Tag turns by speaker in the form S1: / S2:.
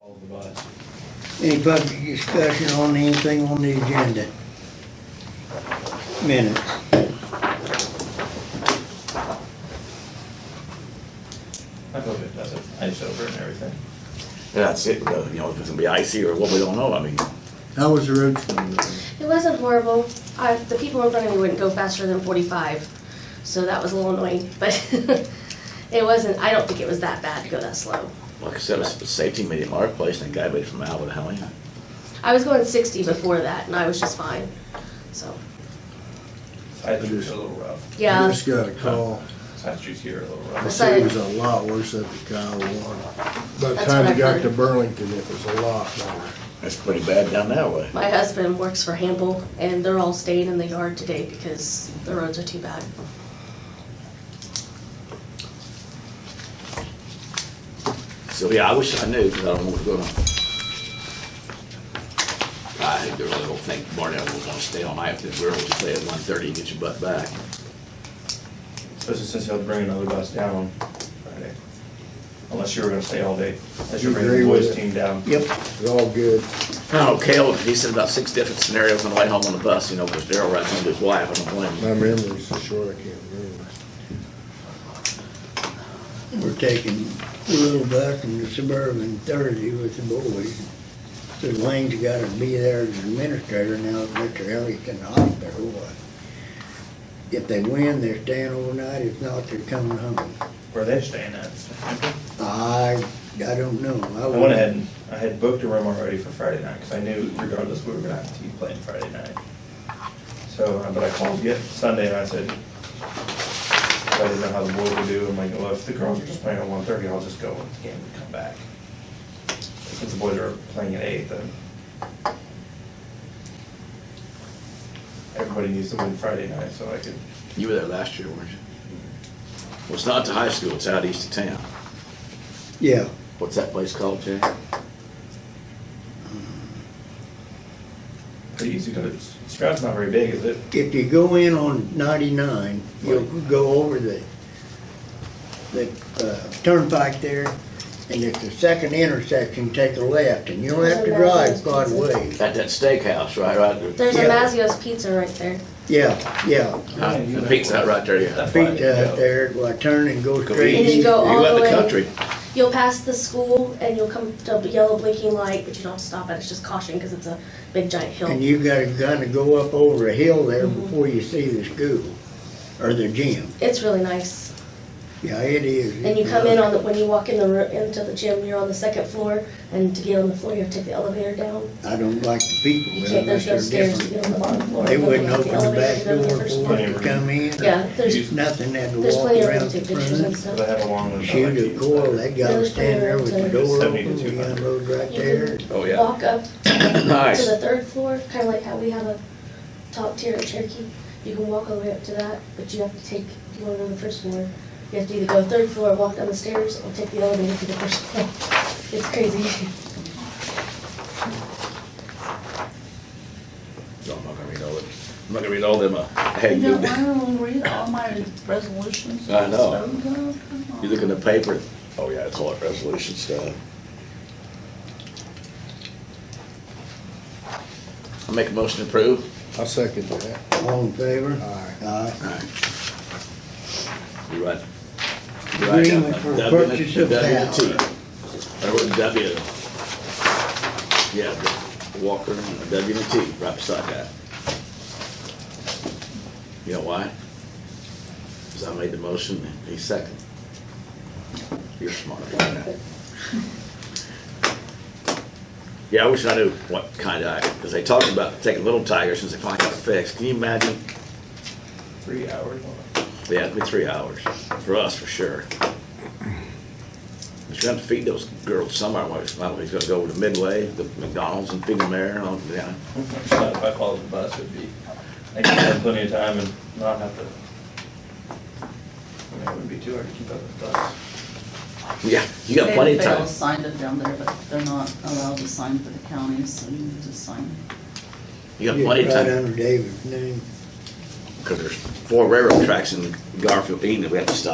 S1: Hold the bus.
S2: Any public discussion on anything on the agenda? Minutes.
S1: I feel good about it. Ice over and everything.
S3: That's it, uh, you know, if it's gonna be icy or what, we don't know, I mean,
S4: How was the road?
S5: It wasn't horrible. I, the people in front of me wouldn't go faster than 45, so that was a little annoying. But it wasn't. I don't think it was that bad to go that slow.
S3: like I said, it's a safety meeting at our place, and a guy made it from Albert, how many?
S5: I was going 60 before that, and I was just fine. So
S1: Side streets are a little rough.
S4: I
S5: yeah,
S4: just got a call.
S1: Side streets here are a little
S4: The
S1: rough.
S4: city was a lot worse up at Kyle One. By the
S5: That's
S4: time
S5: what
S4: you got
S5: I've
S4: to
S5: heard.
S4: Burlington, it was a lot lower.
S3: That's pretty bad down that way.
S5: my husband works for Hamble, and they're all staying in the yard today because the roads are too bad.
S3: So, yeah, I wish I knew, because I don't know what's going on. I really don't think Barnell was gonna stay all night, because we're gonna stay at one thirty and get your butt back.
S1: Especially since he'll bring another bus down on Friday. Unless you were gonna stay all day. Unless you
S4: You
S1: bring the
S4: agree with
S1: boys
S4: it?
S1: team down.
S2: Yep.
S4: It's all good.
S3: Oh, Cale, he said about six different scenarios on the way home on the bus, you know, because Daryl ran into his wife, I don't blame him.
S4: My memory's short, I can't remember.
S2: We're taking a little bus and the Suburban Thursday with the boys. So Wayne's gotta be there as administrator now, that Mr. Elliott's in the hospital. If they win, they're staying overnight, if not, they're coming home.
S1: Where they staying at?
S2: I, I don't know.
S1: I went ahead and, I had booked a room already for Friday night, because I knew regardless, we were gonna have to be playing Friday night. So, uh, but I called yet Sunday and I said, I didn't know how the boys would do, I'm like, well, if the girls are just playing at one thirty, I'll just go with the game and come back. Since the boys are playing at eight, then everybody needs to win Friday night, so I could,
S3: You were there last year, weren't you? Well, it's not the high school, it's out east of town.
S2: Yeah,
S3: What's that place called, Jay?
S1: pretty easy to, Stroud's not very big, is it?
S2: if you go in on ninety-nine, you'll go over the, the, uh, turnpike there, and at the second intersection, take a left, and you'll have to drive quite a ways.
S3: At that steakhouse, right, right there.
S5: There's a
S2: Yeah.
S5: Mazio's Pizza right there.
S2: Yeah, yeah.
S3: Uh, The pizza hut right there, yeah.
S1: That's why I
S2: Pizza
S1: didn't
S2: Hut
S1: go.
S2: there, well, I turn and go
S3: Go
S2: straight.
S5: And
S3: east.
S5: you go all
S3: You out
S5: the way.
S3: country.
S5: You'll pass the school, and you'll come to a yellow blinking light, but you don't stop at it. It's just caution because it's a big giant hill.
S2: And you gotta kinda go up over a hill there
S5: Mm-hmm.
S2: before you see the school, or the gym.
S5: It's really nice.
S2: Yeah, it is.
S5: And you come in on the, when you walk in the, ro- into the gym, you're on the second floor, and to get on the floor, you have to take the elevator down.
S2: I don't like the people
S5: You can't,
S2: unless
S5: there's no
S2: they're
S5: stairs
S2: different.
S5: to get on the bottom floor.
S2: They wouldn't
S5: You have to
S2: open
S5: take
S2: the
S5: elevator
S2: back
S5: to go to the
S2: door
S5: first
S2: for
S5: floor.
S2: them to come in.
S5: Yeah, there's,
S1: Use-
S2: Nothing, had to
S5: there's
S2: walk
S5: plenty of room
S2: around
S5: to
S2: the
S5: take pictures and
S2: front.
S1: Because I
S5: stuff.
S1: had along with.
S2: Shoot a coil, they gotta
S5: There's
S2: stand there with the
S5: plenty of
S2: door
S1: room to-
S2: open, you
S1: 72.
S2: unload right there.
S5: You can
S3: Oh, yeah.
S5: Walk up to
S3: Nice.
S5: the third floor, kinda like how we have a top tier at Cherokee. You can walk all the way up to that, but you have to take, if you wanna go to the first floor, you have to either go third floor, walk down the stairs, or take the elevator to the first floor. It's crazy.
S3: No, I'm not gonna read all of it. I'm not gonna read all them, uh, I had
S6: You don't
S3: moved,
S6: want to read all my resolutions?
S3: I know.
S6: and stuff? Come on.
S3: you look in the paper, oh yeah, it's all that resolution stuff. I make a motion to approve.
S4: I second that.
S2: All in favor?
S4: Aye.
S2: Aye.
S3: You right. You right down
S2: Agreement for
S3: there. W-
S2: purchase of
S3: W2.
S2: power.
S3: Or what, W. Yeah, the Walker and a W and a T, right beside that. You know why? Cause I made the motion, and he's second. You're smart. Yeah, I wish I knew what kind of, cause they talked about taking little tigers since they finally got it fixed. Can you imagine?
S1: Three hours on it.
S3: Yeah, it'd be three hours, for us, for sure. But you have to feed those girls somewhere, whether it's not, he's gonna go over to Midway, the McDonald's and feed them there, and all, yeah.
S1: But If I followed the bus, it'd be, I could have plenty of time and not have to. I mean, it would be too hard to keep up with the bus.
S3: Yeah, you got plenty of
S6: They- They all
S3: time.
S6: signed it down there, but they're not allowed to sign for the county, so you need to sign.
S3: You got plenty of
S2: Right
S3: time,
S2: under David's name.
S3: cause there's four railroad tracks in Garfield, Eden, that we have to stop